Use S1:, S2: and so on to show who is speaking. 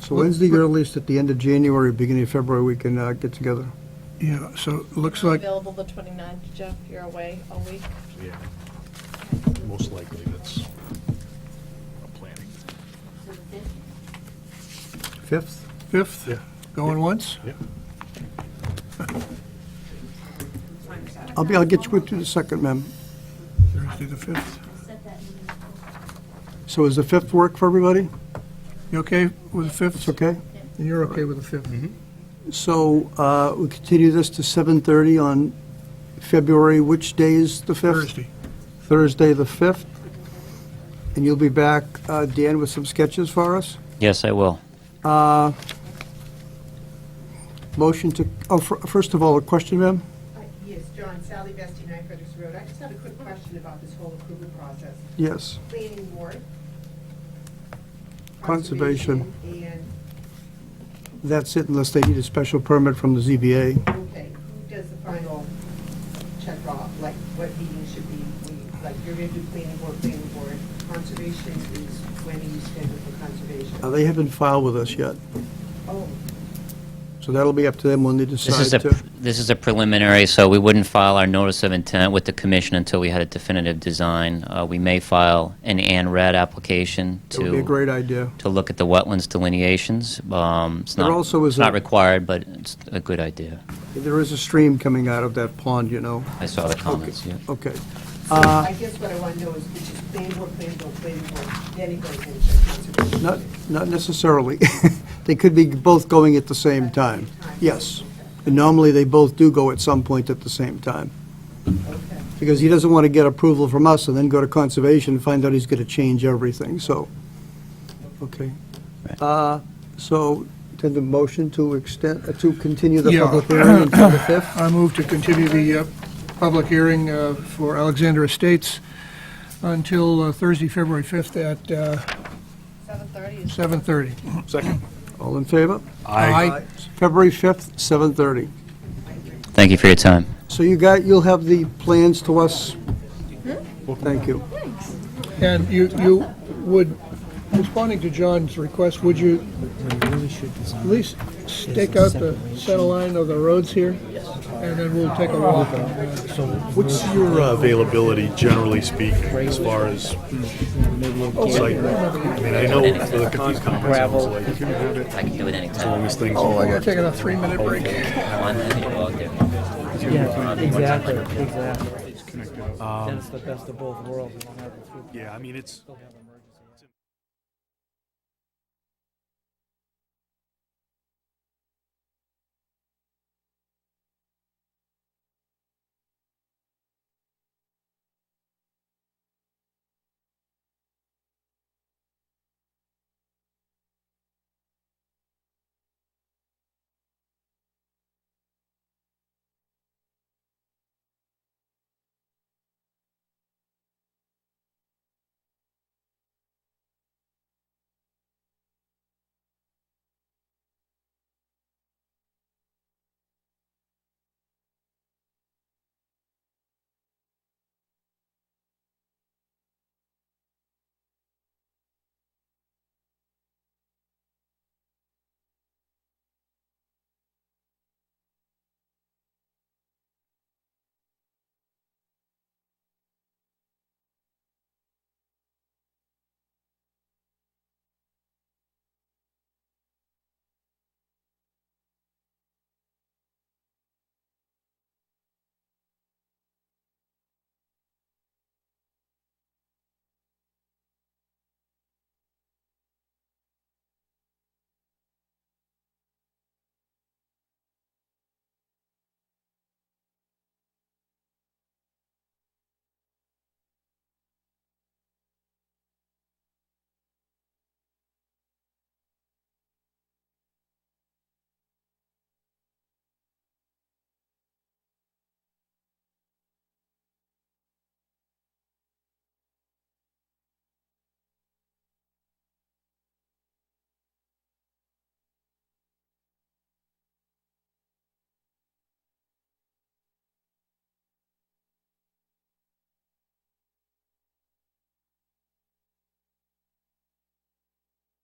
S1: So when's the earliest, at the end of January, beginning of February, we can uh, get together?
S2: Yeah, so it looks like,
S3: Available the 29th, Jeff, you're away a week.
S4: Yeah, most likely that's a planning.
S1: Fifth?
S2: 5th, going once?
S4: Yeah.
S1: I'll be, I'll get you to the second, ma'am.
S2: Thursday the 5th.
S1: So is the fifth work for everybody?
S2: You okay with the Mm-hmm.
S1: It's
S2: 5th?
S1: okay?
S2: And you're okay with the 5th?
S1: So uh, we continue this to 7:30 on February, which day is the 5th?
S2: Thursday.
S1: Thursday, the 5th. And you'll be back, uh, Dan, with some sketches for us?
S5: Yes, I will.
S1: Motion to, oh, fir- first of all, a question, ma'am?
S6: Uh, Yes, John, Sally Vesti, 9 Frederick's Road. I just have a quick question about this whole approval process.
S1: Yes.
S6: Planning board.
S1: Conservation.
S6: And,
S1: That's it, unless they need a special permit from the ZBA.
S6: okay, who does the final check off? Like, what meeting should be, we- like, you're going to do planning board, planning board. Conservation is, when are you scheduled for
S1: Uh,
S6: conservation?
S1: They haven't filed with us yet,
S6: Oh,
S1: so that'll be up to them when they
S5: This is a,
S1: decide to.
S5: pr- this is a preliminary, so we wouldn't file our notice of intent with the commission until we had a definitive design. Uh, we may file an ANRAD application
S1: It would be a
S5: to,
S1: great idea.
S5: to look at the wetlands delineations. Um, It's
S1: There
S5: not,
S1: also is
S5: it's not
S1: a-
S5: required, but it's a good idea.
S1: There is a stream coming out of that pond, you know.
S5: I saw the comments, yeah.
S1: Okay.
S6: so
S1: uh,
S6: I guess what I want to know is, which is planning board, planning board, planning board, then it goes into conservation.
S1: Not, not necessarily. They could be both going at the same time.
S6: Time.
S1: Yes. And normally, they both do go at some point at the same time.
S6: Okay.
S1: Because he doesn't want to get approval from us and then go to conservation and find out he's going to change everything, so, okay. Uh, So, then the motion to extend, uh, to continue the
S2: Yeah.
S1: public hearing until the 5th?
S2: I move to continue the uh, public hearing uh, for Alexander Estates until uh, Thursday, February 5th at uh,
S3: 7:30 is
S2: 7:30.
S4: Second.
S1: All in favor?
S2: Aye.
S1: February 5th, 7:30.
S5: Thank you for your time.
S1: So you got, you'll have the plans to us? Thank you.
S2: And you, you would, responding to John's request, would you at least stake out the center line of the roads here? And then we'll take a walk.
S4: What's your uh, availability, generally speaking, as far as site? I mean, I know for the Concom, it sounds like, as
S5: I can do
S4: long
S5: it anytime.
S4: as things.
S2: We're gonna take a three-minute break.
S5: I'm happy to go out there.
S7: Yeah, exactly, exactly. Then it's the best of both worlds.
S4: Yeah, I mean, it's,